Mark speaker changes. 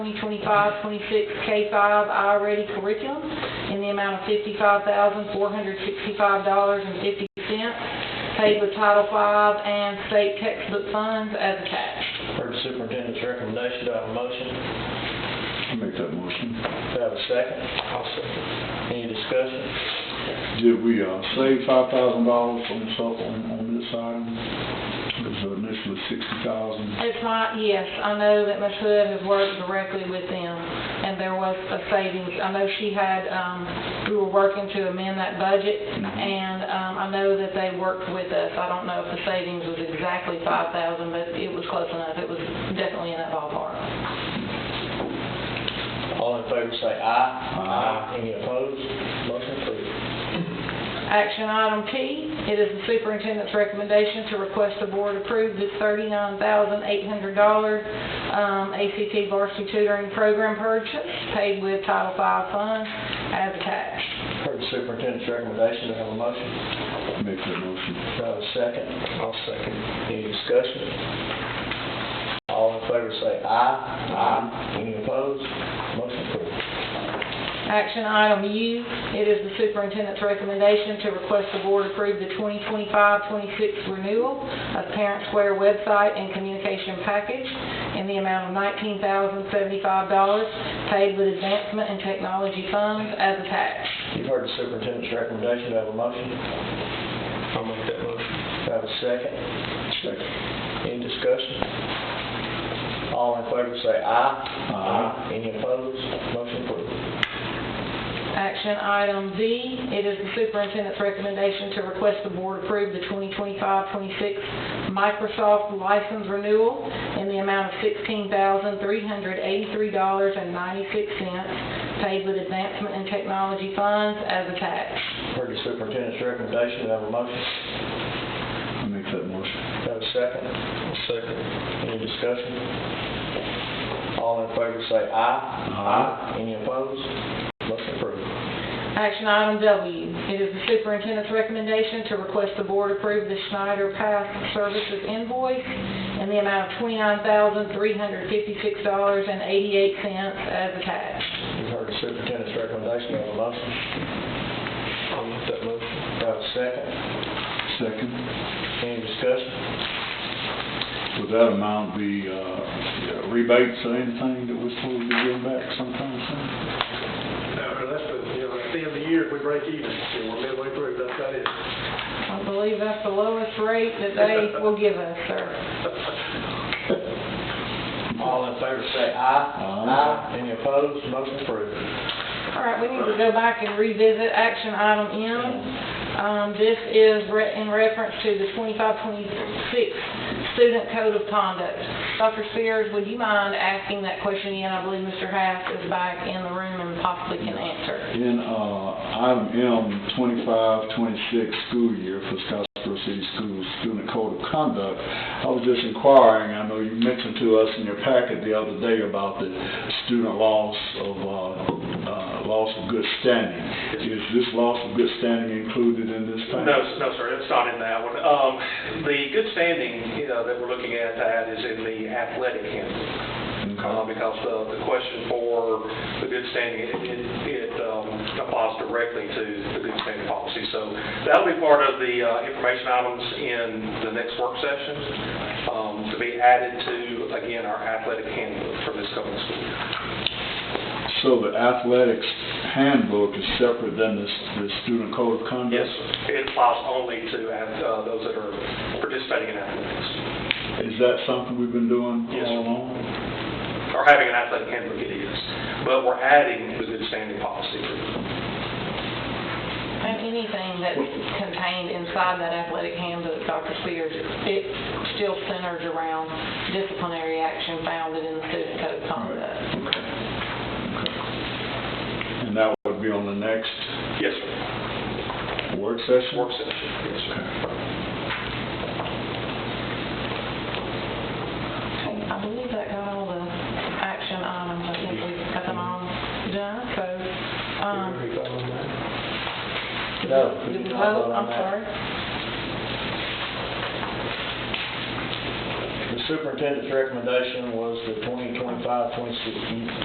Speaker 1: 2025-26 K-5 I Ready curriculum in the amount of $55,465.50 paid with Title V and state textbook funds as attached.
Speaker 2: Heard the superintendent's recommendation, do I have a motion?
Speaker 3: I'll Make that motion.
Speaker 2: Do I have a second? I'll second. Any discussion?
Speaker 3: Did we, uh, save five thousand dollars on this, on, on this item? It was initially sixty thousand.
Speaker 1: It's not, yes, I know that Ms. Hood has worked directly with them, and there was a savings. I know she had, um, we were working to amend that budget, and, um, I know that they worked with us. I don't know if the savings was exactly five thousand, but it was close enough. It was definitely in that ballpark.
Speaker 2: All in favor say aye.
Speaker 3: Aye.
Speaker 2: Any opposed? Motion approved.
Speaker 1: Action item P, it is the superintendent's recommendation to request the board approve the $39,800 um, ACT varsity tutoring program purchase paid with Title V funds as attached.
Speaker 2: Heard the superintendent's recommendation, do I have a motion?
Speaker 3: Make that motion.
Speaker 2: Do I have a second? I'll second. Any discussion? All in favor say aye. Aye. Any opposed? Motion approved.
Speaker 1: Action item U, it is the superintendent's recommendation to request the board approve the 2025-26 renewal of Parent Square website and communication package in the amount of $19,075 paid with advancement in technology funds as attached.
Speaker 2: You've heard the superintendent's recommendation, do I have a motion? I'll make that motion. Do I have a second?
Speaker 3: Second.
Speaker 2: Any discussion? All in favor say aye.
Speaker 3: Aye.
Speaker 2: Any opposed? Motion approved.
Speaker 1: Action item Z, it is the superintendent's recommendation to request the board approve the 2025-26 Microsoft license renewal in the amount of $16,383.96 paid with advancement in technology funds as attached.
Speaker 2: Heard the superintendent's recommendation, do I have a motion?
Speaker 3: I'll Make that
Speaker 2: Do
Speaker 3: motion.
Speaker 2: I have a second? Second. Any discussion? All in favor say aye.
Speaker 3: Aye.
Speaker 2: Any opposed? Motion approved.
Speaker 1: Action item W, it is the superintendent's recommendation to request the board approve the Schneider Path Services invoice in the amount of $29,356.88 as attached.
Speaker 2: You've heard the superintendent's recommendation, do I have a motion? I'll make that motion. Do I have a second?
Speaker 3: Second.
Speaker 2: Any discussion?
Speaker 3: Would that amount be, uh, rebates or anything that we're supposed to be giving back sometime soon?
Speaker 4: No, that's the, you know, at the end of the year, if we break even, and we're midway through, that's about it.
Speaker 1: I believe that's the lowest rate that they will give us, sir.
Speaker 2: All in favor say aye.
Speaker 3: Aye.
Speaker 2: Any opposed? Motion approved.
Speaker 1: All right, we need to go back and revisit action item M. Um, this is re- in reference to the 2526 student code of conduct. Dr. Spears, would you mind asking that question again? I believe Mr. Haff is back in the room and possibly can answer.
Speaker 3: In, uh, item M, twenty-five, twenty-six school year for Scottsboro City Schools Student Code of Conduct, I was just inquiring, I know you mentioned to us in your packet the other day about the student loss of, uh, uh, loss of good standing. Is this loss of good standing included in this thing?
Speaker 5: No, s- no, sir, it's not in that one. Um, the good standing, you know, that we're looking at that is in the athletic handbook. Uh, because the, the question for the good standing, it, it, it, um, applies directly to the good standing policy. So that'll be part of the, uh, information items in the next work session, um, to be added to, again, our athletic handbook for this coming school year.
Speaker 3: So the athletics handbook is separate than this, the student code of conduct?
Speaker 5: Yes, sir. it applies only to, ath- uh, those that are participating in athletics.
Speaker 3: Is that something we've been doing
Speaker 5: Yes, sir.
Speaker 3: all along?
Speaker 5: or having an athletic handbook, it is. But we're adding the good standing policy.
Speaker 1: And anything that's contained inside that athletic handbook, Dr. Spears, it still centers around disciplinary action founded in the student code of conduct.
Speaker 3: And that would be on the next
Speaker 5: Yes, sir.
Speaker 3: work session?
Speaker 5: Work session, yes, sir.
Speaker 1: Okay, I believe that got all the action items, I think we got them all done, so, um,
Speaker 2: No.
Speaker 1: did we vote, I'm sorry?
Speaker 2: The superintendent's recommendation was the 2025-26